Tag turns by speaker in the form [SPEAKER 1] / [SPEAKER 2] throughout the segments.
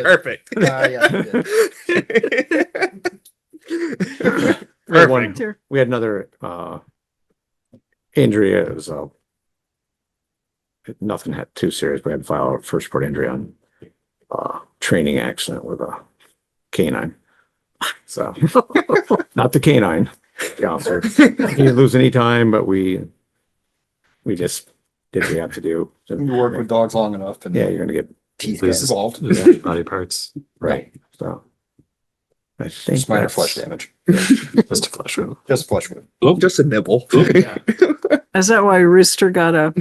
[SPEAKER 1] Perfect.
[SPEAKER 2] Uh, yeah, you did.
[SPEAKER 3] We had one-
[SPEAKER 1] Perfect.
[SPEAKER 3] we had another, uh, injury, it was, uh, nothing had too serious, we had filed a first report injury on, uh, training accident with a canine. So, not the canine, the officer. He didn't lose any time, but we, we just did what we have to do.
[SPEAKER 2] You work with dogs long enough and
[SPEAKER 3] Yeah, you're gonna get,
[SPEAKER 2] teeth get
[SPEAKER 4] Loses-
[SPEAKER 2] involved.
[SPEAKER 4] loses body parts.
[SPEAKER 3] right, so. I think.
[SPEAKER 2] Just minor
[SPEAKER 3] that's-
[SPEAKER 2] flesh damage,
[SPEAKER 4] Just a flesh wound.
[SPEAKER 2] just flesh wound.
[SPEAKER 1] Just a nibble.
[SPEAKER 5] Is that why Rooster got a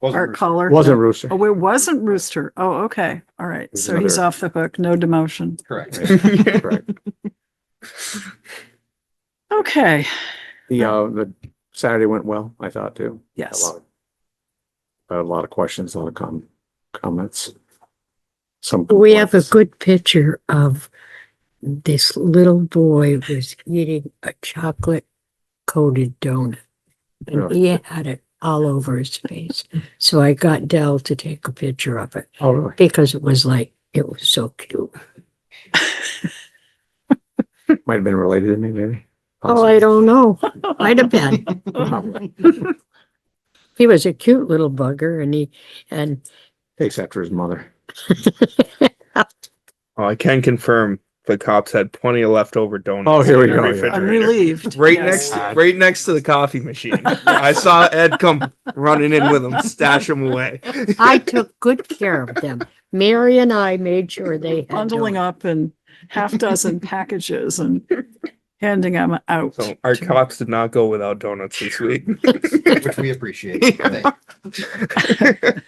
[SPEAKER 2] Wasn't
[SPEAKER 5] art
[SPEAKER 2] bruised.
[SPEAKER 5] collar?
[SPEAKER 3] Wasn't Rooster.
[SPEAKER 5] Oh, it wasn't Rooster. Oh, okay. All right.
[SPEAKER 3] There's
[SPEAKER 5] So he's
[SPEAKER 3] another-
[SPEAKER 5] off the hook. No demotion.
[SPEAKER 2] Correct.
[SPEAKER 3] Correct.
[SPEAKER 5] Okay.
[SPEAKER 3] The, uh, the Saturday went well, I thought too. A
[SPEAKER 5] Yes.
[SPEAKER 3] lot. I had a lot of questions, a lot of com- comments. Some.
[SPEAKER 6] We have a
[SPEAKER 3] complaints.
[SPEAKER 6] good picture of this little boy was eating a chocolate coated donut. And
[SPEAKER 3] Really?
[SPEAKER 6] he had it all over his face. So I got Dell to take a picture of it
[SPEAKER 3] Oh, really?
[SPEAKER 6] because it was like, it was so cute.
[SPEAKER 3] Might have been related to me, maybe.
[SPEAKER 6] Oh, I don't know. Might have been. He was a cute little bugger and he, and
[SPEAKER 3] Takes after his mother.
[SPEAKER 1] Well, Oh, I can confirm the cops had plenty of leftover donuts.
[SPEAKER 3] Oh, here we
[SPEAKER 1] in their
[SPEAKER 3] go, yeah.
[SPEAKER 1] refrigerator.
[SPEAKER 5] I'm relieved.
[SPEAKER 1] Right
[SPEAKER 5] Yes.
[SPEAKER 1] next, right next to the coffee machine. I saw Ed come running in with them, stash them away.
[SPEAKER 6] I took good care of them. Mary and I made sure they had.
[SPEAKER 5] Bundling up
[SPEAKER 6] donuts.
[SPEAKER 5] in half dozen packages and handing them out.
[SPEAKER 1] So our cops did not go without donuts this week.
[SPEAKER 2] Which we appreciate. I think.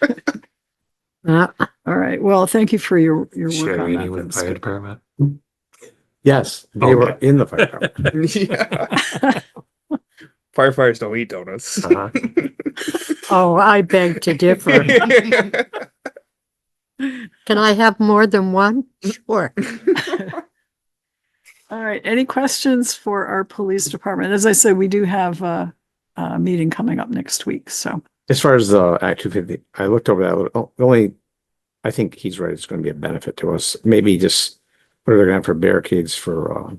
[SPEAKER 6] Uh,
[SPEAKER 5] All right. Well, thank you for your, your work on
[SPEAKER 4] Sharing
[SPEAKER 5] that.
[SPEAKER 4] with the
[SPEAKER 5] That
[SPEAKER 4] fire
[SPEAKER 5] was
[SPEAKER 4] department.
[SPEAKER 3] Yes, they were
[SPEAKER 4] Okay.
[SPEAKER 3] in the fire. department.
[SPEAKER 1] Yeah. Firefighters don't eat donuts.
[SPEAKER 3] Uh-huh.
[SPEAKER 6] Oh, I beg to differ. Can I have more than one? Sure.
[SPEAKER 5] good. All right. Any questions for our police department? As I said, we do have a, a meeting coming up next week. So
[SPEAKER 3] As far as the Act two fifty, I looked over that, a little- the only, I think he's right, it's gonna be a benefit to us, maybe just, what are they gonna have for barricades for, uh,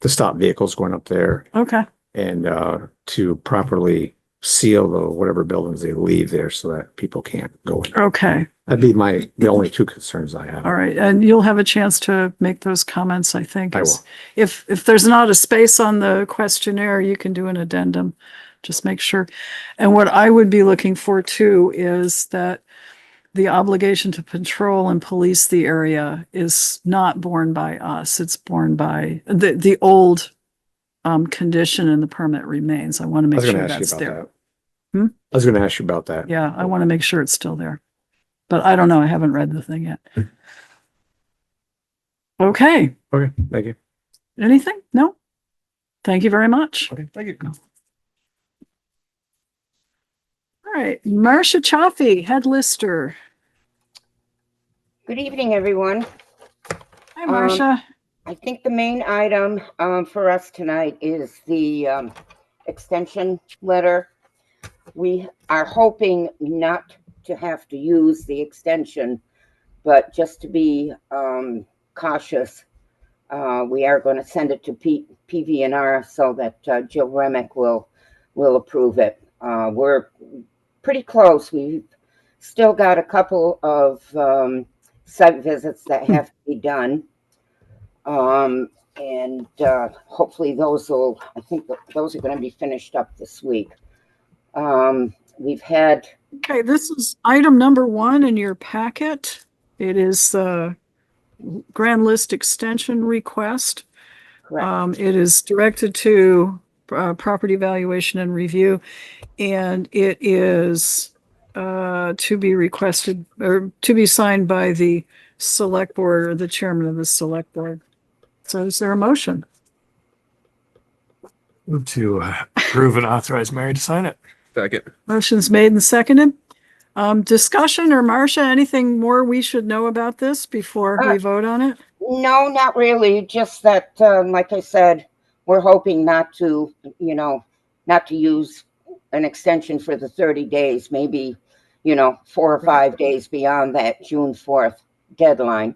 [SPEAKER 3] to stop vehicles going up there
[SPEAKER 5] okay.
[SPEAKER 3] and, uh, to properly seal the, whatever buildings they leave there so that people can't go in.
[SPEAKER 5] Okay.
[SPEAKER 3] That'd be my, the only two concerns I have.
[SPEAKER 5] All right, and you'll have a chance to make those comments, I think.
[SPEAKER 3] I
[SPEAKER 5] as-
[SPEAKER 3] will.
[SPEAKER 5] If, if there's not a space on the questionnaire, you can do an addendum. Just make sure. And what I would be looking for too is that the obligation to patrol and police the area is not borne by us. It's borne by, the, the old um, condition and the permit remains. I want
[SPEAKER 3] I
[SPEAKER 5] to make
[SPEAKER 3] was gonna
[SPEAKER 5] sure
[SPEAKER 3] ask
[SPEAKER 5] that's
[SPEAKER 3] you about
[SPEAKER 5] there.
[SPEAKER 3] that.
[SPEAKER 5] Hmm?
[SPEAKER 3] I was gonna ask you about that.
[SPEAKER 5] Yeah, I want to make sure it's still there. But I don't know, I haven't read the thing yet. Okay.
[SPEAKER 3] Okay, thank you.
[SPEAKER 5] Anything? No? Thank you very much.
[SPEAKER 2] Okay, Thank you.
[SPEAKER 5] All right, Marcia Chaffee, head lister.
[SPEAKER 7] Good evening, everyone.
[SPEAKER 5] Hi,
[SPEAKER 7] Um,
[SPEAKER 5] Marcia.
[SPEAKER 7] I think the main item um, for us tonight is the um, extension letter. We are hoping not to have to use the extension, but just to be um, cautious, uh, we are going to send it to P- PVNR so that uh, Jill Remick will, will approve it. Uh, We're pretty close. We've still got a couple of um, site visits that have to be done. Um, and, uh, hopefully those will, I think th- those are gonna be finished up this week. Um, we've had,
[SPEAKER 5] Okay, this is item number one in your packet. It is the grand list extension request.
[SPEAKER 7] correct,
[SPEAKER 5] Um, it is directed to, uh, property valuation and review. And it is, uh, to be requested or to be signed by the select board or the chairman of the select board. So is there a motion?
[SPEAKER 4] Move to uh, approve and authorize Mary to sign it.
[SPEAKER 1] Second.
[SPEAKER 5] Motion's made and seconded. Um, discussion or Marcia, anything more we should know about this before we
[SPEAKER 7] Uh,
[SPEAKER 5] vote on it?
[SPEAKER 7] no, not really, just that, uh, like I said, we're hoping not to, you know, not to use an extension for the thirty days, maybe, you know, four or five days beyond that June fourth deadline.